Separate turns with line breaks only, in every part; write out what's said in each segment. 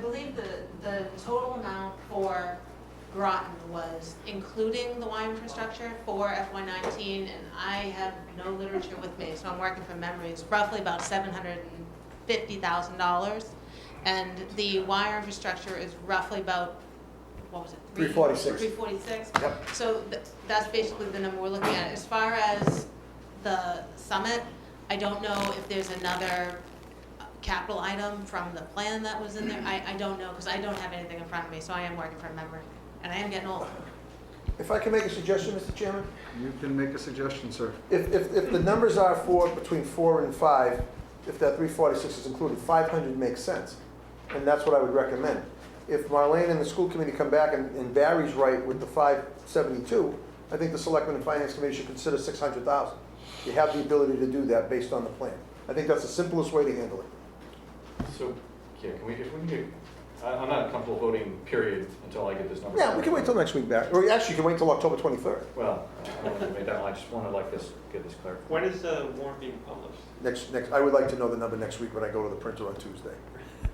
believe the, the total amount for Groton was, including the wine infrastructure for FY nineteen, and I have no literature with me, so I'm working from memory, it's roughly about seven hundred and fifty thousand dollars. And the wire infrastructure is roughly about, what was it?
346.
Three forty-six.
Yep.
So th- that's basically the number we're looking at. As far as the summit, I don't know if there's another uh, capital item from the plan that was in there. I, I don't know, because I don't have anything in front of me, so I am working from memory, and I am getting old.
If I can make a suggestion, Mr. Chairman?
You can make a suggestion, sir.
If, if, if the numbers are for between four and five, if that three forty-six is included, five hundred makes sense. And that's what I would recommend. If Marlene and the school committee come back and, and Barry's right with the five seventy-two, I think the selectmen and finance committee should consider six hundred thousand. You have the ability to do that based on the plan. I think that's the simplest way to handle it.
So, yeah, can we, if we can do, I, I'm not comfortable voting period until I get this number.
Yeah, we can wait till next week, Barry, or actually, you can wait till October twenty-third,
Well, I don't want to make that, I just want to like this, get this clarified.
When is the warrant being published?
next, next, I would like to know the number next week when I go to the printer on Tuesday.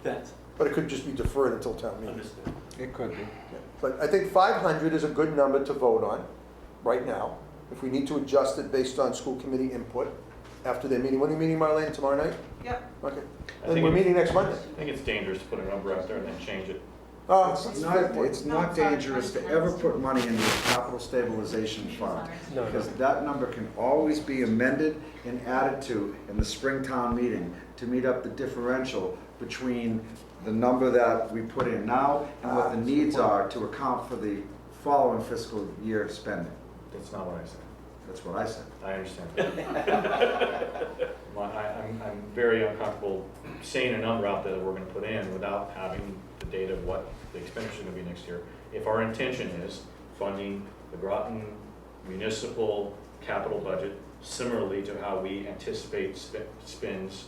That's
But it could just be deferred until town meeting.
understood.
It could be.
But I think 500 is a good number to vote on right now. If we need to adjust it based on school committee input after their meeting, when are you meeting, Marlene, tomorrow night?
Yep.
Okay.
I
Then
think
we're
it-
meeting next Monday.
I think it's dangerous to put a number out there and then change it.
Oh, it's-
It's not, it's
No,
not
sorry,
dangerous to
I'm
ever
sorry.
put money in the capital stabilization fund. Because that number can always be amended and added to in the spring town meeting to meet up the differential between the number that we put in now and what the needs are to account for the following fiscal year spending.
That's not what I said.
That's what I said.
I understand. My- I, I'm, I'm very uncomfortable saying a number out there that we're going to put in without having the data of what the expenditure is going to be next year. If our intention is funding the Groton municipal capital budget similarly to how we anticipate spe- spends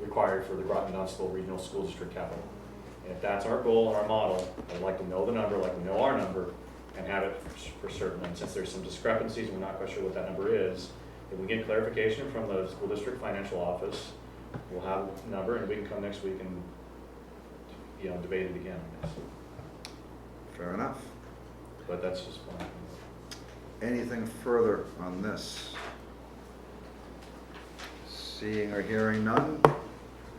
required for the Groton Dunstable Regional School District capital. And if that's our goal and our model, I'd like to know the number, like we know our number, and have it for certain. And since there's some discrepancies, we're not quite sure what that number is. If we get clarification from the school district financial office, we'll have a number, and we can come next week and, you know, debate it again, I guess.
Fair enough.
But that's just one.
Anything further on this? Seeing or hearing none,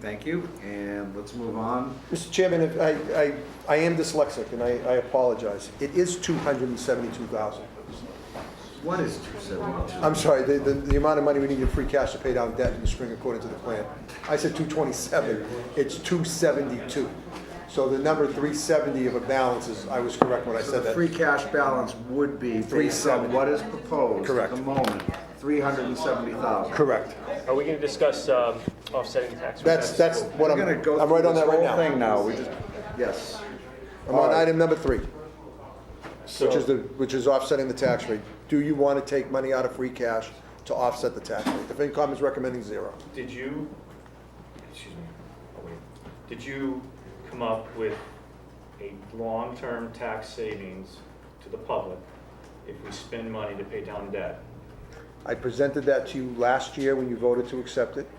thank you, and let's move on.
Mr. Chairman, if I, I, I am dyslexic and I, I apologize. It is 272,000.
What is 272?
I'm sorry, the, the, the amount of money we need in free cash to pay down debt in the spring according to the plan. I said 227, it's 272. So the number 370 of a balance is, I was correct when I
So
said
the
that.
free cash balance would be, based on
370.
what is proposed at
Correct.
the moment, 370,000.
Correct.
Are we gonna discuss um, offsetting tax?
That's, that's what
We're
I'm,
gonna go
I'm right
through
on
this
that right now.
whole Thing now, we just, yes.
I'm on
Alright.
item number three,
So
which is the, which is offsetting the tax rate. Do you want to take money out of free cash to offset the tax rate? The FinCom is recommending zero.
Did you, excuse me, oh wait, did you come up with a long-term tax savings to the public if we spend money to pay down debt?
I presented that to you last year when you voted to accept it.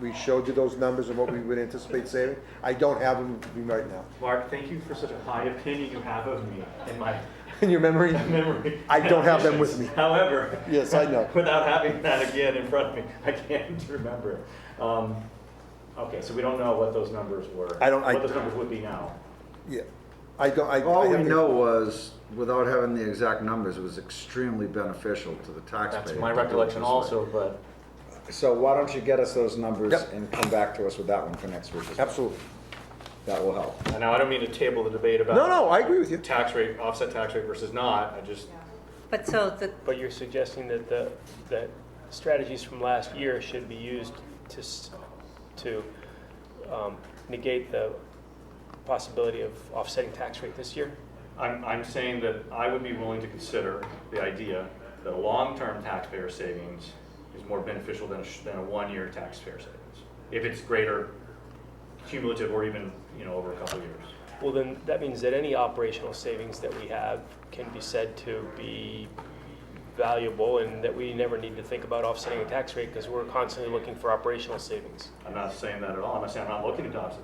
We showed you those numbers and what we would anticipate saving. I don't have them with me right now.
Mark, thank you for such a high opinion you have of me and my
In your memory?
memory.
I don't have them with me.
However.
Yes, I know.
Without having that again in front of me, I can't remember it. Um, Okay, so we don't know what those numbers were.
I don't- I-
What those numbers would be now.
Yeah. I don't, I. I
All we
haven't-
know was, without having the exact numbers, it was extremely beneficial to the taxpayer.
That's my
to do it
recollection
this way.
also, but.
So why don't you get us those numbers
Yep.
and come back to us with that one for next week? as well?
Absolutely.
That will help.
And Now, I don't mean to table the debate about.
No, no, I agree with you.
Tax rate, offset tax rate versus not, I just,
But so the,
But you're suggesting that the, that strategies from last year should be used to, s- to um, negate the possibility of offsetting tax rate this year?
I'm, I'm saying that I would be willing to consider the idea that a long-term taxpayer savings is more beneficial than a, sh- than a one-year taxpayer savings. If it's greater cumulative or even, you know, over a couple of years.
Well, then, that means that any operational savings that we have can be said to be valuable and that we never need to think about offsetting a tax rate because we're constantly looking for operational savings.
I'm not saying that at all, I'm not saying I'm not looking to offset